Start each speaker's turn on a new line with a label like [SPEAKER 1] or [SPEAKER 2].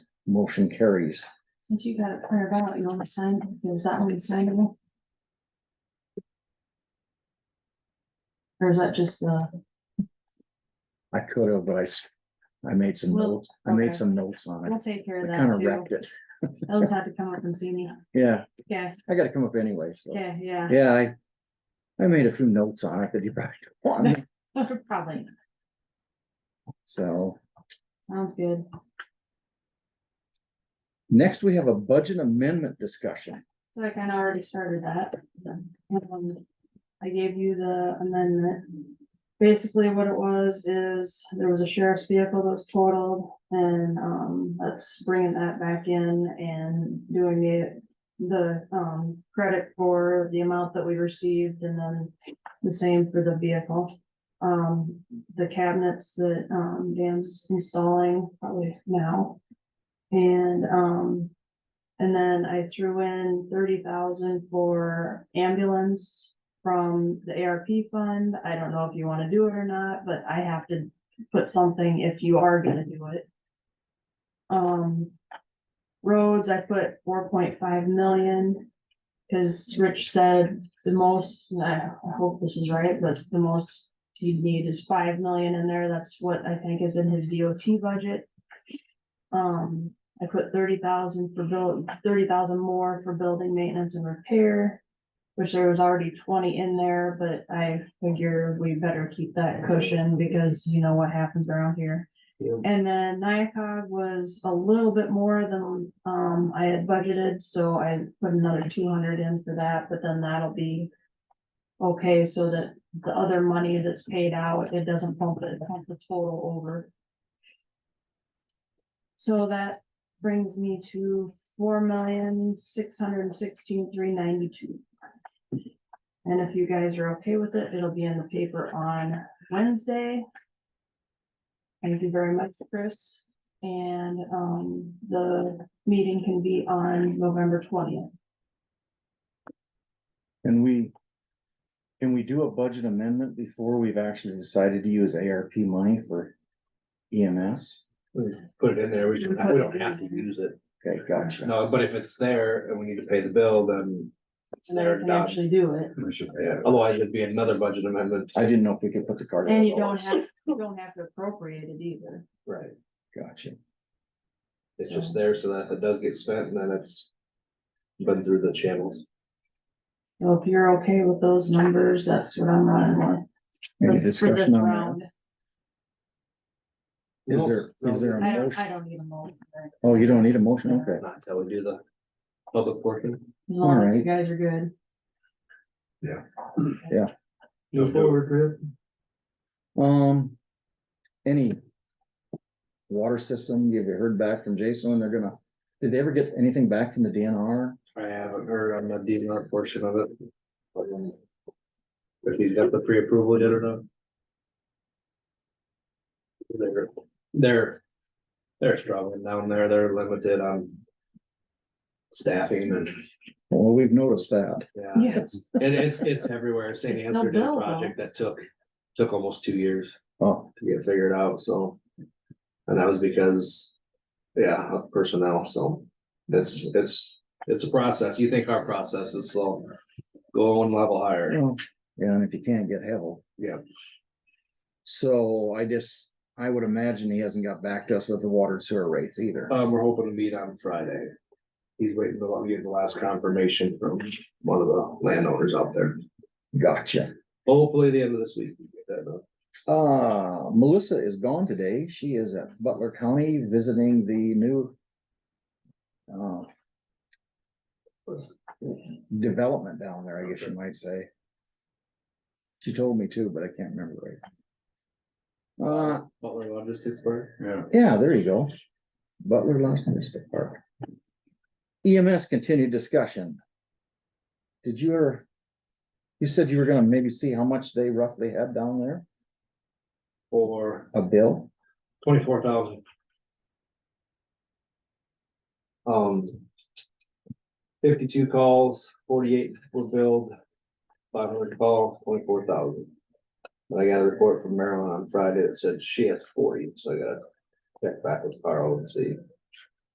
[SPEAKER 1] Motion carries.
[SPEAKER 2] Since you got it printed out, you want to sign, is that one signable? Or is that just the,
[SPEAKER 1] I could have, but I, s- I made some
[SPEAKER 2] Well,
[SPEAKER 1] notes. I made
[SPEAKER 2] okay.
[SPEAKER 1] some notes on
[SPEAKER 2] we'll
[SPEAKER 1] it.
[SPEAKER 2] take care
[SPEAKER 1] I
[SPEAKER 2] of
[SPEAKER 1] kind
[SPEAKER 2] that
[SPEAKER 1] of
[SPEAKER 2] too.
[SPEAKER 1] wrecked it.
[SPEAKER 2] Those had to come up and see me.
[SPEAKER 1] Yeah,
[SPEAKER 2] Yeah,
[SPEAKER 1] I gotta come up anyway, so.
[SPEAKER 2] yeah, yeah.
[SPEAKER 1] Yeah, I, I made a few notes on it that you probably don't want,
[SPEAKER 2] Probably.
[SPEAKER 1] so.
[SPEAKER 2] Sounds good.
[SPEAKER 1] Next, we have a budget amendment discussion.
[SPEAKER 2] So I kind of already started that. Um, I gave you the amendment. Basically, what it was is there was a sheriff's vehicle that was totaled and, um, that's bringing that back in and doing it. The, um, credit for the amount that we received and then the same for the vehicle. Um, the cabinets that, um, Dan's installing probably now. And, um, and then I threw in thirty thousand for ambulance from the ARP fund. I don't know if you wanna do it or not, but I have to put something if you are gonna do it. Um, roads, I put four point five million. Cause Rich said the most, and I I hope this is right, but the most you'd need is five million in there. That's what I think is in his DOT budget. Um, I put thirty thousand for build, thirty thousand more for building maintenance and repair. Which there was already twenty in there, but I figure we better keep that cushion because you know what happens around here. And then NICOG was a little bit more than, um, I had budgeted, so I put another two hundred in for that, but then that'll be. Okay, so that the other money that's paid out, it doesn't bump it, bump the total over. So that brings me to four million, six hundred and sixteen, three ninety-two. And if you guys are okay with it, it'll be in the paper on Wednesday. Thank you very much, Chris. And, um, the meeting can be on November twentieth.
[SPEAKER 1] Can we, can we do a budget amendment before we've actually decided to use ARP money for E EMS?
[SPEAKER 3] Put it in there, we should, we don't have to use it,
[SPEAKER 1] Okay, gotcha.
[SPEAKER 3] no, but if it's there and we need to pay the bill, then it's
[SPEAKER 2] And then
[SPEAKER 3] there
[SPEAKER 2] we
[SPEAKER 3] to
[SPEAKER 2] can
[SPEAKER 3] dodge.
[SPEAKER 2] actually do it.
[SPEAKER 3] We should pay it, otherwise it'd be another budget amendment.
[SPEAKER 1] I didn't know if we could put the card.
[SPEAKER 2] And you don't have, you don't have to appropriate it either.
[SPEAKER 3] Right,
[SPEAKER 1] Gotcha.
[SPEAKER 3] it's just there so that if it does get spent, then it's been through the channels.
[SPEAKER 2] So if you're okay with those numbers, that's what I'm running with.
[SPEAKER 1] Any
[SPEAKER 2] for- for this
[SPEAKER 1] discussion on
[SPEAKER 2] round.
[SPEAKER 1] that? Is there, is there a
[SPEAKER 2] I don't, I
[SPEAKER 1] motion?
[SPEAKER 2] don't need a motion. right?
[SPEAKER 1] Oh, you don't need a motion? Okay.
[SPEAKER 3] Not until we do the public portion.
[SPEAKER 2] As long as you
[SPEAKER 1] Alright.
[SPEAKER 2] guys are good.
[SPEAKER 3] Move forward,
[SPEAKER 1] Um, any water system, have you heard back from Jason when they're gonna, did they ever get anything back from the DNR?
[SPEAKER 3] I haven't heard on the DNR portion of it. but, um, If he's got the pre-approval yet or not. They're, they're, they're struggling down there, they're limited on. Staffing and,
[SPEAKER 1] Well, we've noticed that.
[SPEAKER 3] yeah,
[SPEAKER 2] Yes.
[SPEAKER 3] and it's, it's everywhere, St.
[SPEAKER 2] It's
[SPEAKER 3] Anthony did a
[SPEAKER 2] still
[SPEAKER 3] project that took, took almost two years
[SPEAKER 1] Oh,
[SPEAKER 3] to get figured out, so. And that was because, yeah, of personnel, so it's, it's, it's a process. You think our process is slow. Go one level higher.
[SPEAKER 1] well, yeah, and if you can't get help.
[SPEAKER 3] Yeah.
[SPEAKER 1] So I just, I would imagine he hasn't got back to us with the water and sewer rates either.
[SPEAKER 3] Um, we're hoping to meet on Friday. He's waiting to get the last confirmation from one of the landowners out there.
[SPEAKER 1] Gotcha.
[SPEAKER 3] Hopefully the end of this week. we get that done.
[SPEAKER 1] Uh, Melissa is gone today. She is at Butler County visiting the new uh, development down there, I guess you might say. She told me too, but I can't remember right. Uh,
[SPEAKER 3] Butler Logistics Park. Yeah.
[SPEAKER 1] yeah, there you go. Butler Lost Mystic Park. EMS continued discussion. Did you ever? You said you were gonna maybe see how much they roughly had down there,
[SPEAKER 3] Or
[SPEAKER 1] a bill?
[SPEAKER 3] twenty-four thousand. Um. Fifty-two calls, forty-eight were billed, five hundred calls, twenty-four thousand. But I got a report from Marilyn on Friday that said she has forty, so I gotta check back with Carl and see.